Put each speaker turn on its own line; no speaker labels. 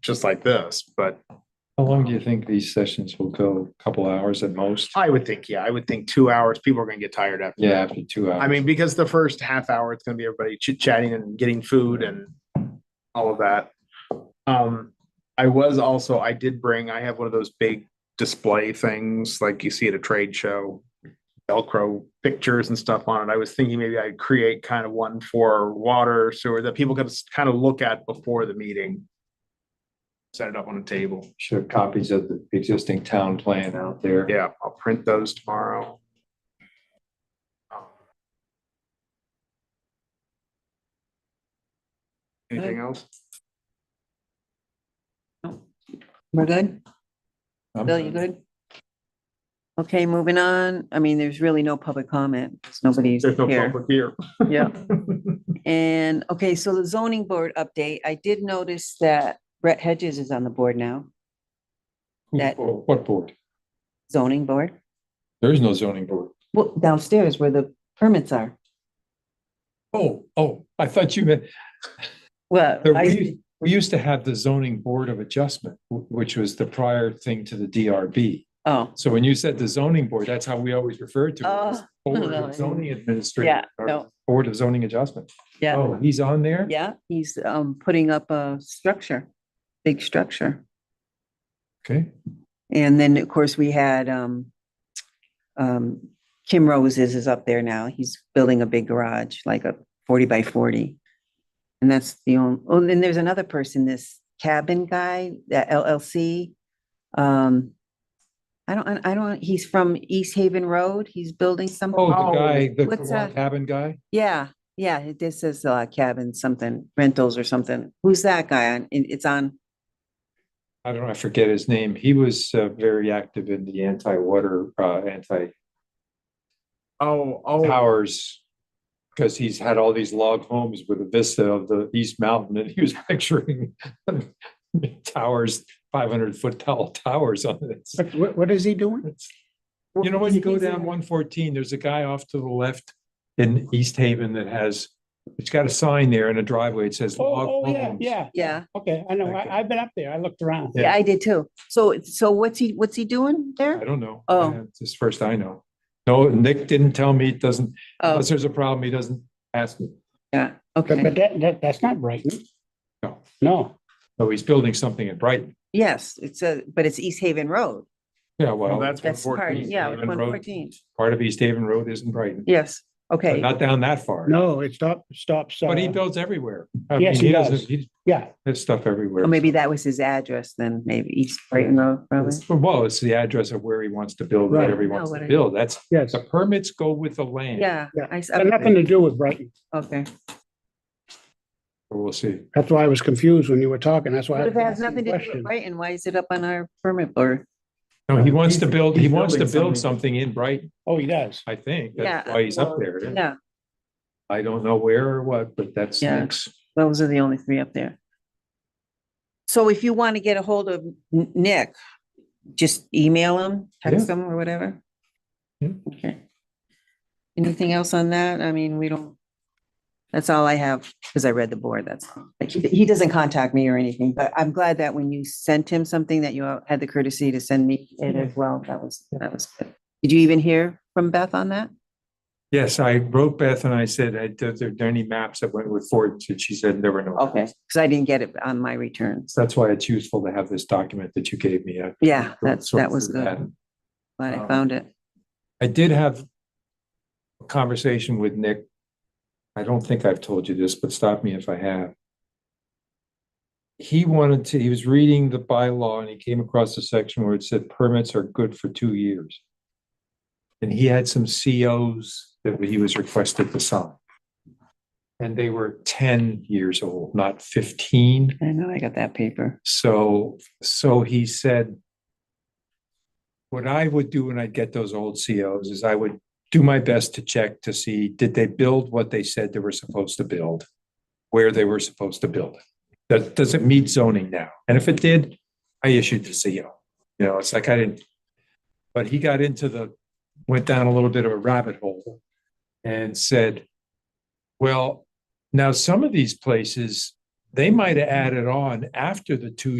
just like this, but
How long do you think these sessions will go? A Couple hours at most?
I would think, yeah, I would think two hours, people are gonna get tired after.
Yeah,
that.
after two hours.
I mean, because the first half hour, it's gonna be everybody chit chatting and getting food and all of that. Um, I was also, I did bring, I have one of those big display things like you see at a trade show. Velcro pictures and stuff on it. I was thinking maybe I'd create kind of one for water sewer that people could s- kind of look at before the meeting. Set it up on a table.
Should have copies of the existing town plan out there.
Yeah, I'll print those tomorrow. Um, Anything else?
We're good?
I'm-
Bill, you good? Okay, moving on. I mean, there's really no public comment. 'cause Nobody's
There's no
here.
public here.
Yeah. And, okay, so the zoning board update, I did notice that Brett Hedges is on the board now,
Who-
That-
What board?
zoning board.
There is no zoning board.
Well, downstairs where the permits are.
Oh, oh, I thought you meant,
Well,
there- we,
I,
used- we used to have the zoning board of adjustment, wh- which was the prior thing to the DRB.
oh,
So when you said the zoning board, that's how we always referred to it. as
Oh,
Board
no.
of zoning
yeah,
administrator. or
no,
Board of zoning adjustment.
yeah,
Oh, he's on there?
yeah, he's, um, putting up a structure, big structure.
Okay.
And then, of course, we had, um, um, Kim Roses is up there now. He's building a big garage, like a forty by forty. And that's the only, oh, then there's another person, this cabin guy, that LLC. Um, I don't, I don't, he's from East Haven Road. He's building some.
Oh, the guy,
what's
the
that?
cabin guy?
Yeah, yeah, this is uh cabin, something rentals or something. Who's that guy? on? It- It's on,
I don't know, I forget his name. He was uh, very active in the anti-water, uh, anti-towers.
Oh, oh,
Because he's had all these log homes with a vista of the East Mountain and he was picturing towers, five hundred foot tall towers on this.
What, what is he doing?
You know, when you go down one fourteen, there's a guy off to the left in East Haven that has, it's got a sign there in a driveway. It says. log
Oh, oh, yeah,
homes.
yeah,
yeah,
okay, I know, I, I've been up there, I looked around.
Yeah.
yeah, I did too. So, so what's he, what's he doing
I
there?
don't know.
Oh.
Yeah, It's his first I know. No, Nick didn't tell me, It doesn't,
Oh,
unless there's a problem, he doesn't ask me.
yeah,
But,
okay,
but that, that, that's not Brighton.
No.
No,
Oh, he's building something in Brighton.
yes, it's a, but it's East Haven Road.
Yeah,
well,
well,
oh, that's one
That's part,
fourteen.
yeah,
Haven
one
Road.
fourteen,
part of East Haven Road is in Brighton,
yes,
but
okay,
not down that far.
no, it stops, stops.
But he
uh,
builds everywhere. I
Yes,
mean,
he
doesn't-
does.
he-
Yeah,
His stuff everywhere.
or maybe that was his address then, maybe East Brighton Road, probably.
It's- Well, it's the address of where he wants to build,
Right.
whatever he
No,
wants to
whatever.
build. That's,
yes,
the permits go with the land.
Yeah,
Yeah.
I, s-
Got nothing to do with Brighton,
okay,
We'll see.
that's why I was confused when you were talking, that's why. I
but if it has
asked you the
nothing to do with
question.
Brighton, why is it up on our permit board?
No, he wants to build, he
he's
wants to
building
build
something.
something in Brighton,
Oh, he does,
I think. That's
Yeah,
why he's up
well,
there.
Yeah,
I don't know where or what, but that's
Yeah.
next.
those are the only three up there. So if you want to get a hold of N- Nick, just email him, text him or whatever.
Yeah.
Okay. Anything else on that? I mean, we don't, that's all I have because I read the board. That's, all. Like, he he doesn't contact me or anything, but I'm glad that when you sent him something that you had the courtesy to send me it as well. That was, that was good. Did you even hear from Beth on that?
Yes, I wrote Beth and I said, I, there there are any maps that went with Ford? And she said, there were no.
Okay, because I didn't get it on my returns.
So That's why it's useful to have this document that you gave me. I-
Yeah, that's,
sort
that was
through that.
good. Glad I
Um,
found it.
I did have a conversation with Nick. I don't think I've told you this, but stop me if I have. He wanted to, he was reading the bylaw and he came across a section where it said permits are good for two years. And he had some COs that he was requested to sign. And they were ten years old, not fifteen.
I know, I got that paper.
So, so he said, what I would do when I'd get those old COs is I would do my best to check to see, did they build what they said they were supposed to build? Where they were supposed to build it? That, does it meet zoning now? And if it did, I issued the CO. You know, it's like I didn't, but he got into the, went down a little bit of a rabbit hole and said, well, now some of these places, they might have added on after the two